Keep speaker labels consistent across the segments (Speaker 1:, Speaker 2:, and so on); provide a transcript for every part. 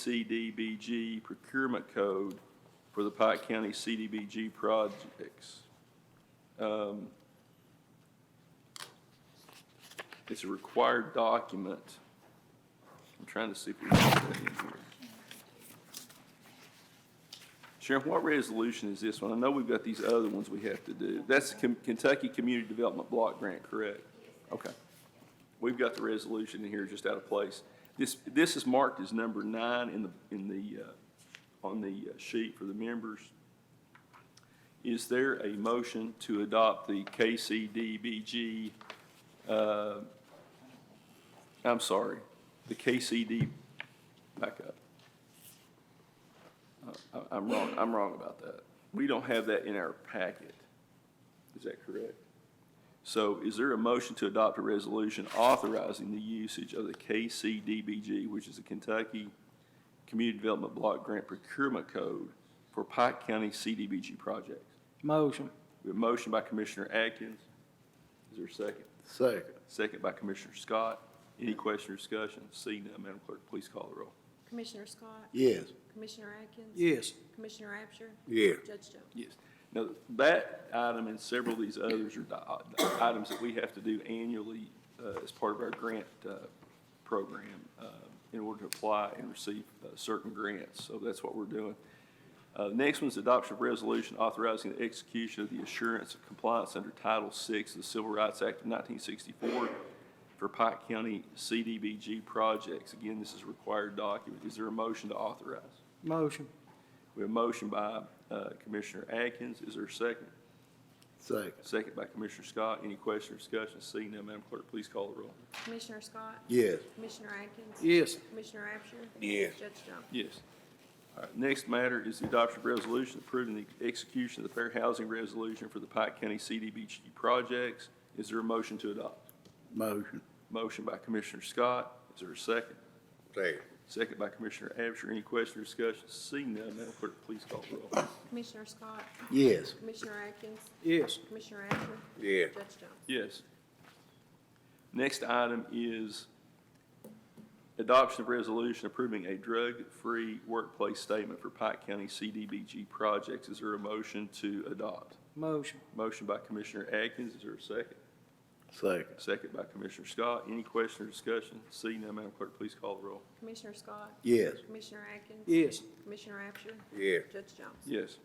Speaker 1: KCDBG procurement code for the Pike County CDBG projects. Um, It's a required document. I'm trying to see if we can put that in here. Sheriff, what resolution is this one? I know we've got these other ones we have to do. That's the Ken- Kentucky Community Development Block Grant, correct? Okay. We've got the resolution in here just out of place. This, this is marked as number nine in the, in the, uh, on the uh, sheet for the members. Is there a motion to adopt the KCDBG, uh, I'm sorry, the KCD, back up. Uh, I- I'm wrong, I'm wrong about that. We don't have that in our packet. Is that correct? So is there a motion to adopt a resolution authorizing the usage of the KCDBG, which is the Kentucky Community Development Block Grant Procurement Code for Pike County CDBG projects?
Speaker 2: Motion.
Speaker 1: We have a motion by Commissioner Atkins. Is there a second?
Speaker 3: Second.
Speaker 1: Second by Commissioner Scott. Any question or discussion? Seeing none, Madam Clerk, please call the roll.
Speaker 4: Commissioner Scott?
Speaker 3: Yes.
Speaker 4: Commissioner Atkins?
Speaker 2: Yes.
Speaker 4: Commissioner Absher?
Speaker 3: Yeah.
Speaker 4: Judge Jones?
Speaker 1: Yes. Now, that item and several of these others are di- items that we have to do annually uh, as part of our grant uh, program uh, in order to apply and receive uh, certain grants. So that's what we're doing. Uh, Next one's adoption of resolution authorizing the execution of the assurance of compliance under Title VI of the Civil Rights Act of 1964 for Pike County CDBG projects. Again, this is a required document. Is there a motion to authorize?
Speaker 2: Motion.
Speaker 1: We have a motion by uh, Commissioner Atkins. Is there a second?
Speaker 3: Second.
Speaker 1: Second by Commissioner Scott. Any question or discussion? Seeing none, Madam Clerk, please call the roll.
Speaker 4: Commissioner Scott?
Speaker 3: Yes.
Speaker 4: Commissioner Atkins?
Speaker 2: Yes.
Speaker 4: Commissioner Absher?
Speaker 3: Yes.
Speaker 4: Judge Jones?
Speaker 1: Yes. All right, next matter is the adoption of resolution approving the execution of the fair housing resolution for the Pike County CDBG projects. Is there a motion to adopt?
Speaker 3: Motion.
Speaker 1: Motion by Commissioner Scott. Is there a second?
Speaker 3: Second.
Speaker 1: Second by Commissioner Absher. Any question or discussion? Seeing none, Madam Clerk, please call the roll.
Speaker 4: Commissioner Scott?
Speaker 3: Yes.
Speaker 4: Commissioner Atkins?
Speaker 2: Yes.
Speaker 4: Commissioner Absher?
Speaker 3: Yeah.
Speaker 4: Judge Jones?
Speaker 1: Yes. Next item is adoption of resolution approving a drug-free workplace statement for Pike County CDBG projects. Is there a motion to adopt?
Speaker 2: Motion.
Speaker 1: Motion by Commissioner Atkins, is there a second?
Speaker 3: Second.
Speaker 1: Second by Commissioner Scott. Any question or discussion? Seeing none, Madam Clerk, please call the roll.
Speaker 4: Commissioner Scott?
Speaker 3: Yes.
Speaker 4: Commissioner Atkins?
Speaker 2: Yes.
Speaker 4: Commissioner Absher?
Speaker 3: Yeah.
Speaker 4: Judge Jones?
Speaker 1: Yes.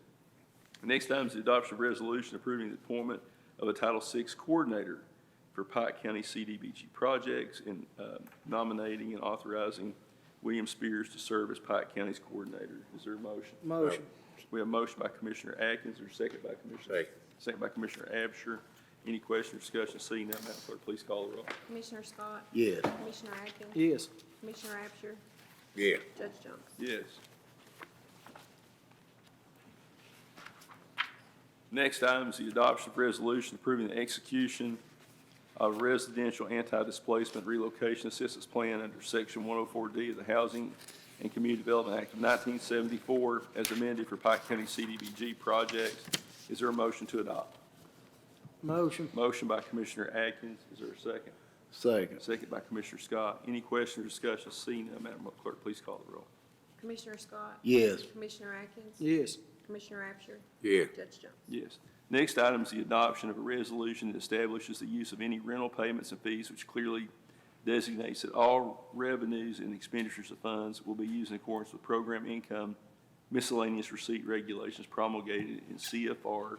Speaker 1: Next item is the adoption of resolution approving the appointment of a Title VI Coordinator for Pike County CDBG projects and uh, nominating and authorizing William Spears to serve as Pike County's coordinator. Is there a motion?
Speaker 2: Motion.
Speaker 1: We have a motion by Commissioner Atkins, or second by Commissioner?
Speaker 3: Second.
Speaker 1: Second by Commissioner Absher. Any question or discussion? Seeing none, Madam Clerk, please call the roll.
Speaker 4: Commissioner Scott?
Speaker 3: Yes.
Speaker 4: Commissioner Atkins?
Speaker 2: Yes.
Speaker 4: Commissioner Absher?
Speaker 3: Yeah.
Speaker 4: Judge Jones?
Speaker 1: Yes. Next item is the adoption of resolution approving the execution of residential anti-displacement relocation assistance plan under section one oh four D of the Housing and Community Development Act of nineteen seventy-four as amended for Pike County CDBG projects. Is there a motion to adopt?
Speaker 2: Motion.
Speaker 1: Motion by Commissioner Atkins. Is there a second?
Speaker 3: Second.
Speaker 1: Second by Commissioner Scott. Any question or discussion? Seeing none, Madam Clerk, please call the roll.
Speaker 4: Commissioner Scott?
Speaker 3: Yes.
Speaker 4: Commissioner Atkins?
Speaker 2: Yes.
Speaker 4: Commissioner Absher?
Speaker 3: Yeah.
Speaker 4: Judge Jones?
Speaker 1: Yes. Next item is the adoption of a resolution that establishes the use of any rental payments and fees, which clearly designates that all revenues and expenditures of funds will be used in accordance with program income miscellaneous receipt regulations promulgated in CFR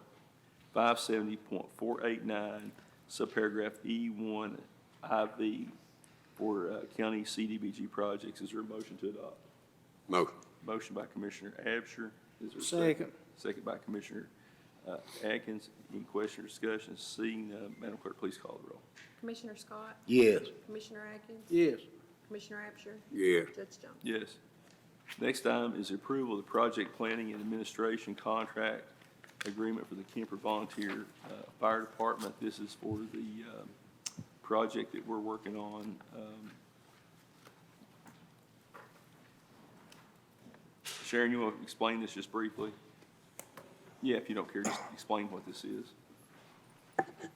Speaker 1: five seventy point four eight nine, subparagraph E one IV for uh, county CDBG projects. Is there a motion to adopt?
Speaker 3: Motion.
Speaker 1: Motion by Commissioner Absher. Is there a
Speaker 2: Second.
Speaker 1: Second by Commissioner uh, Atkins. Any question or discussion? Seeing none, Madam Clerk, please call the roll.
Speaker 4: Commissioner Scott?
Speaker 3: Yes.
Speaker 4: Commissioner Atkins?
Speaker 2: Yes.
Speaker 4: Commissioner Absher?
Speaker 3: Yeah.
Speaker 4: Judge Jones?
Speaker 1: Yes. Next item is approval of the project planning and administration contract agreement for the Kemper Volunteer uh, Fire Department. This is for the um, project that we're working on. um, Sharon, you want to explain this just briefly? Yeah, if you don't care, just explain what this is.